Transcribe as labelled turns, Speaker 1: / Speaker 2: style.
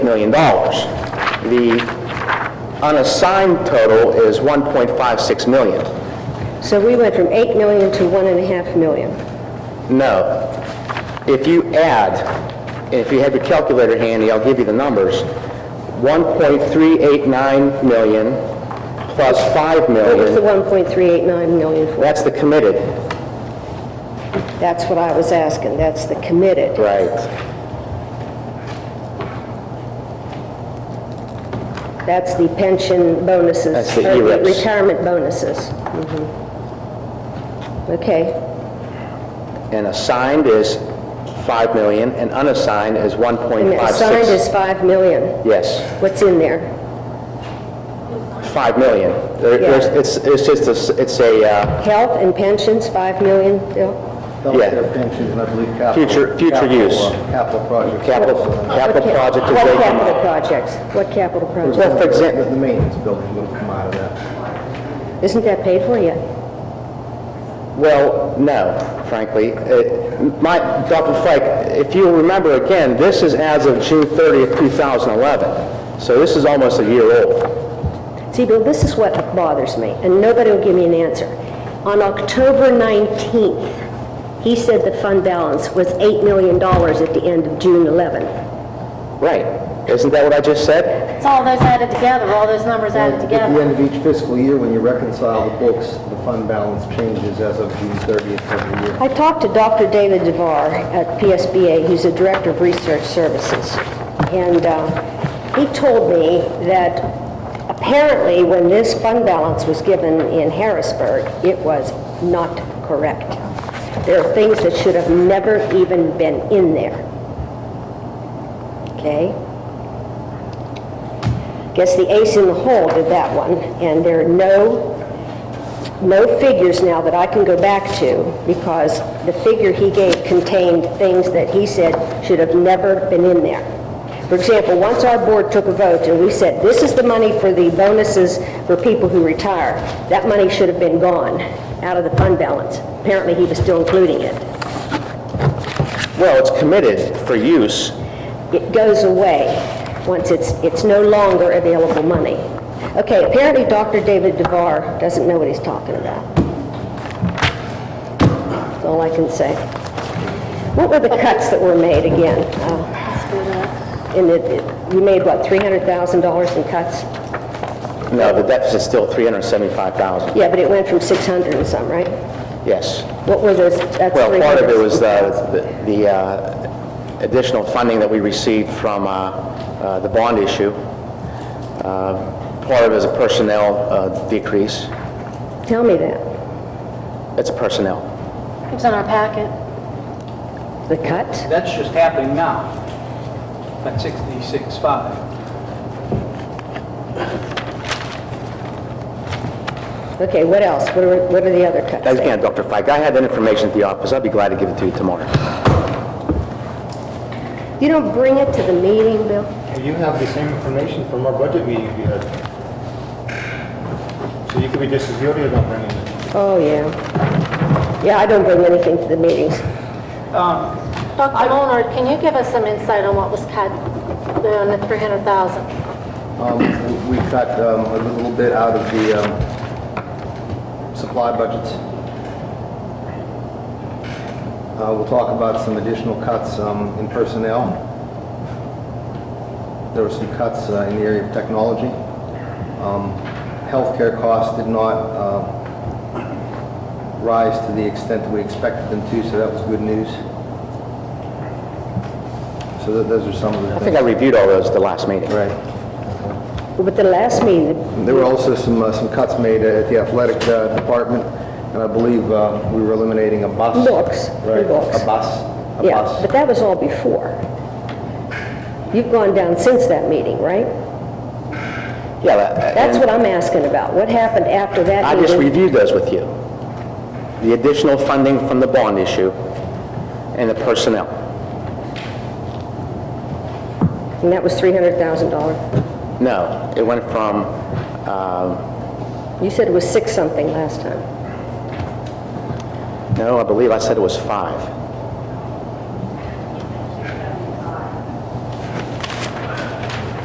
Speaker 1: million. The unassigned total is 1.56 million.
Speaker 2: So we went from 8 million to 1.5 million.
Speaker 1: No. If you add, if you have your calculator handy, I'll give you the numbers. 1.389 million plus 5
Speaker 2: What was the
Speaker 1: million,
Speaker 2: 1.389 million for?
Speaker 1: that's the committed,
Speaker 2: That's what I was asking, that's the committed.
Speaker 1: right?
Speaker 2: That's the pension bonuses.
Speaker 1: That's the Mm-hmm.
Speaker 2: or
Speaker 1: ERIPS.
Speaker 2: Retirement bonuses. Mhm. Okay.
Speaker 1: And assigned is 5 million, and unassigned is
Speaker 2: And the assigned
Speaker 1: 1.56.
Speaker 2: is 5 million.
Speaker 1: Yes,
Speaker 2: What's in there?
Speaker 1: 5 million. There-
Speaker 2: Yeah.
Speaker 1: there's- It's it's just, a s- it's a uh,
Speaker 2: Health and pensions, 5 million, Bill?
Speaker 1: Yeah.
Speaker 3: Healthcare pensions, and I believe capital.
Speaker 1: Future- future
Speaker 3: capital,
Speaker 1: use.
Speaker 3: uh, Capital projects.
Speaker 1: capital capital
Speaker 2: What ca-
Speaker 1: project. is
Speaker 2: What
Speaker 1: vacant.
Speaker 2: capital projects? What capital projects?
Speaker 1: Well, for example-
Speaker 3: uh, The the maintenance building will come out of that.
Speaker 2: Isn't that paid for yet?
Speaker 1: Well, no, frankly. Uh, My, Dr. Fike, if you remember again, this is as of June 30th, 2011, so this is almost a year old.
Speaker 2: See, Bill, this is what bothers me, and nobody will give me an answer. On October 19th, he said the fund balance was $8 million at the end of June 11.
Speaker 1: Right, isn't that what I just said?
Speaker 4: It's all those added together, all those numbers added
Speaker 3: At the
Speaker 4: together.
Speaker 3: end of each fiscal year, when you reconcile the books, the fund balance changes as of June 30th every year.
Speaker 2: I talked to Dr. David DeVar at PSBA, he's the Director of Research Services, and uh, he told me that apparently when this fund balance was given in Harrisburg, it was not correct. There are things that should have never even been in there. Okay? Guess the ace in the hole did that one, and there are no no figures now that I can go back to, because the figure he gave contained things that he said should have never been in there. For example, once our board took a vote and we said, this is the money for the bonuses for people who retire, that money should have been gone out of the fund balance. Apparently, he was still including it.
Speaker 1: Well, it's committed for use.
Speaker 2: it goes away once it's, it's no longer available money. Okay, apparently Dr. David DeVar doesn't know what he's talking about. That's all I can say. What were the cuts that were made again? Uh, In the, you made what, $300,000 in cuts?
Speaker 1: No, the deficit's still 375,000,
Speaker 2: Yeah, but it went from 600 and some, right?
Speaker 1: yes.
Speaker 2: What were those, that's
Speaker 1: Well, part of it was
Speaker 2: $300,000.
Speaker 1: the the uh, additional funding that we received from uh, uh, the bond issue. Uh, Part of it is a personnel uh, decrease.
Speaker 2: Tell me that.
Speaker 1: It's a personnel.
Speaker 4: It was in our packet.
Speaker 2: The cut?
Speaker 5: That's just happening now, at 66.5.
Speaker 2: Okay, what else? What are, what are the other cuts? there?
Speaker 1: Again, Dr. Fike, I had that information at the office, I'd be glad to give it to you tomorrow.
Speaker 2: You don't bring it to the meeting, Bill?
Speaker 6: You have the same information from our budget meeting we had. So you could be just as guilty of not bringing it.
Speaker 2: Oh, yeah. Yeah, I don't bring anything to the meetings.
Speaker 4: Dr. Molnar, can you give us some insight on what was cut on the 300,000?
Speaker 3: Um, we- We cut um, a little bit out of the um, supply budgets. Uh, We'll talk about some additional cuts um, in personnel. There were some cuts uh, in the area of technology. Um, Healthcare costs did not uh, rise to the extent that we expected them to, so that was good news. So tho- those are some of the
Speaker 1: I
Speaker 3: things.
Speaker 1: think I reviewed all those at the last meeting.
Speaker 3: Right.
Speaker 2: But the last meeting,
Speaker 3: There were also some, uh, some cuts made at the athletic uh, department, and I believe uh, we were eliminating a bus.
Speaker 2: Books,
Speaker 3: Right,
Speaker 2: books.
Speaker 3: a bus, a
Speaker 2: yeah,
Speaker 3: bus.
Speaker 2: but that was all before. You've gone down since that meeting, right?
Speaker 1: Yeah, that-
Speaker 2: That's
Speaker 1: and
Speaker 2: what I'm asking about. What happened after that
Speaker 1: I just
Speaker 2: meeting?
Speaker 1: reviewed those with you. The additional funding from the bond issue and the personnel.
Speaker 2: And that was $300,000.
Speaker 1: No, it went from, um,
Speaker 2: You said it was six something last time.
Speaker 1: no, I believe I said it was five.